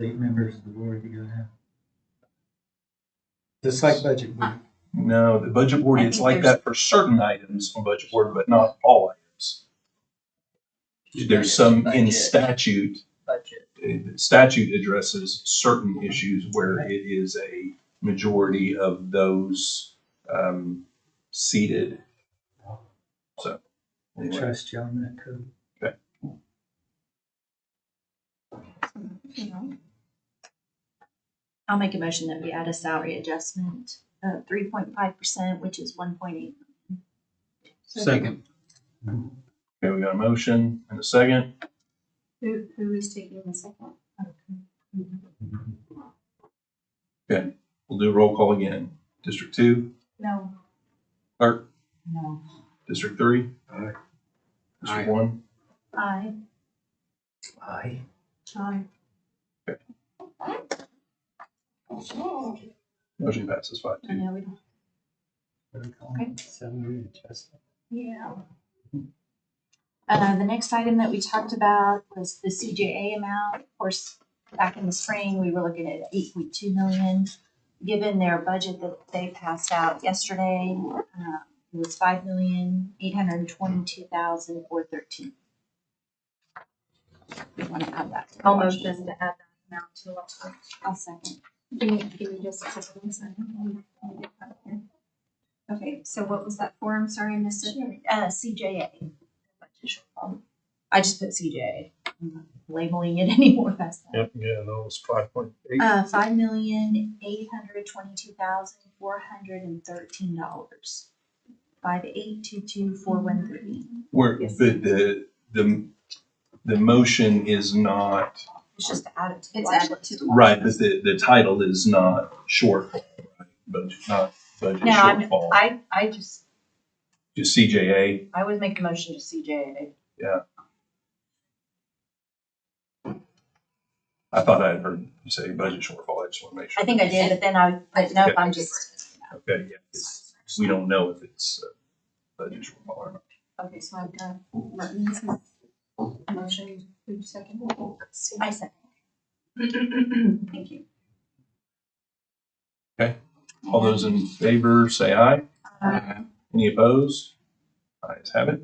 Eight members of the board you gotta have. Just like budget, we- No, the budget board, I it's think like there's- that for certain items on budget board, but not all items. There's some in Budget. statute, budget. uh, statute addresses certain issues where it is a majority of those um, seated. So. we anyway. trust you on that code. I'll make a motion that we add a salary adjustment of three point five percent, which is one point eight. Second. Okay, we got a motion and a second. Who, who is taking the second? We'll do a roll call again. District two, No. clerk, No. district three. Aye. District one, I. Aye. I. motion passes five I two. know we don't. What do we call it? Salary adjustment. Yeah. Uh, the next item that we talked about was the CJA amount. Of course, back in the spring, we were looking at eight point two million. Given their budget that they passed out yesterday, uh, it was five million, eight hundred and twenty-two thousand, four thirteen. We want to add that. to the Almost budget. just to add that amount to the last one. I'll second. Give me, give me just a couple of seconds. Okay, so what was that for? I'm sorry, I missed it. Uh, CJA. I just put CJA. I'm not Labeling it anymore, that's. not- Yep, yeah, that was five point eight. Uh, five million, eight hundred twenty-two thousand, four hundred and thirteen dollars. Five eight two two four one three. Where, Yes. but the, the, the motion is not, It's just added to. the It's watch added list. to the. right, but the, the title is not short, but not budget No, I'm, shortfall. I, I just, Just CJA, I would make a motion to CJA. I thought I had heard you say budget shortfall, I just want to make sure. I think I did, but then I, but no, I'm just, Okay, yeah, it's- we don't know if it's uh, budget shortfall or not. Okay, so I've done Martin's motion, who second? I second. Thank you. All those in favor, say aye. Uh, Any opposed? Ayes have it.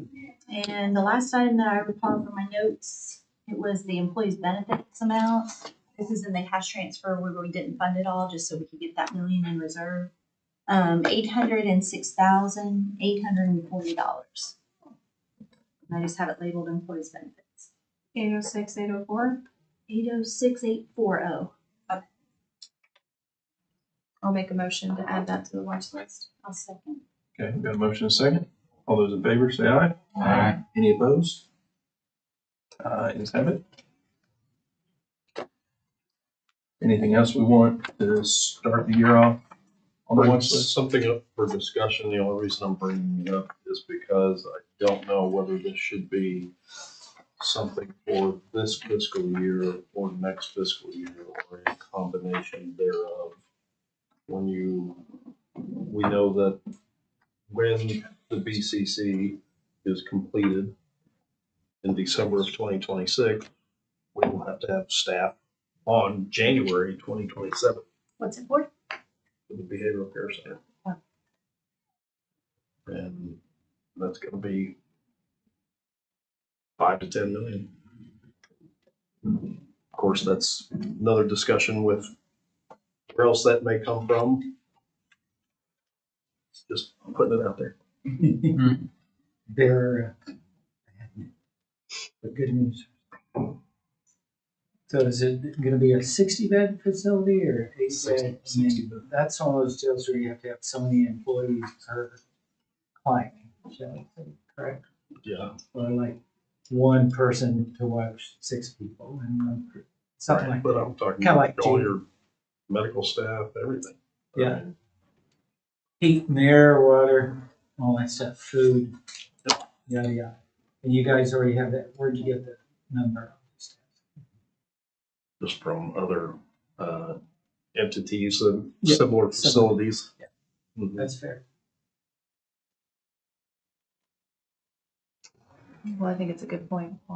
And the last item that I recall from my notes, it was the employees' benefits amount. This is in the cash transfer where we didn't fund it all, just so we could get that million in reserve. Um, eight hundred and six thousand, eight hundred and forty dollars. I just have it labeled employees' benefits. Eight oh six, eight oh four. Eight oh six eight four oh. I'll make a motion to add that to the watch list. I'll second. Okay, we got a motion and a second. All those in favor, say aye. Aye. Any opposed? Uh, Ayes have it. Anything else we want to start the year off on the watch list? Something up for discussion, the only reason I'm bringing it up is because I don't know whether this should be something for this fiscal year or next fiscal year or a combination thereof. When you, we know that when the BCC is completed in December of twenty twenty-six, we will have to have staff on January twenty twenty-seven What's it for? for the behavioral care center. Yeah. And that's gonna be five to ten million. Of course, that's another discussion with where else that may come from. Just putting it out there. They're, uh, but good news. So is it gonna be a sixty bed facility or eight bed? I mean, 60 bed. That's one of those deals where you have to have so many employees per client, shall I say, correct? Yeah. Or like one person to watch six people and one, per- something like But that. I'm talking Kinda like about all Jane. your medical staff, everything. Yeah. heat and air, water, all that stuff, food, yada, yada. And you guys already have that, where'd you get the number? Just from other, uh, entities and Yeah, similar similar. facilities. Yeah. Mhm. That's fair. Well, I think it's a good point.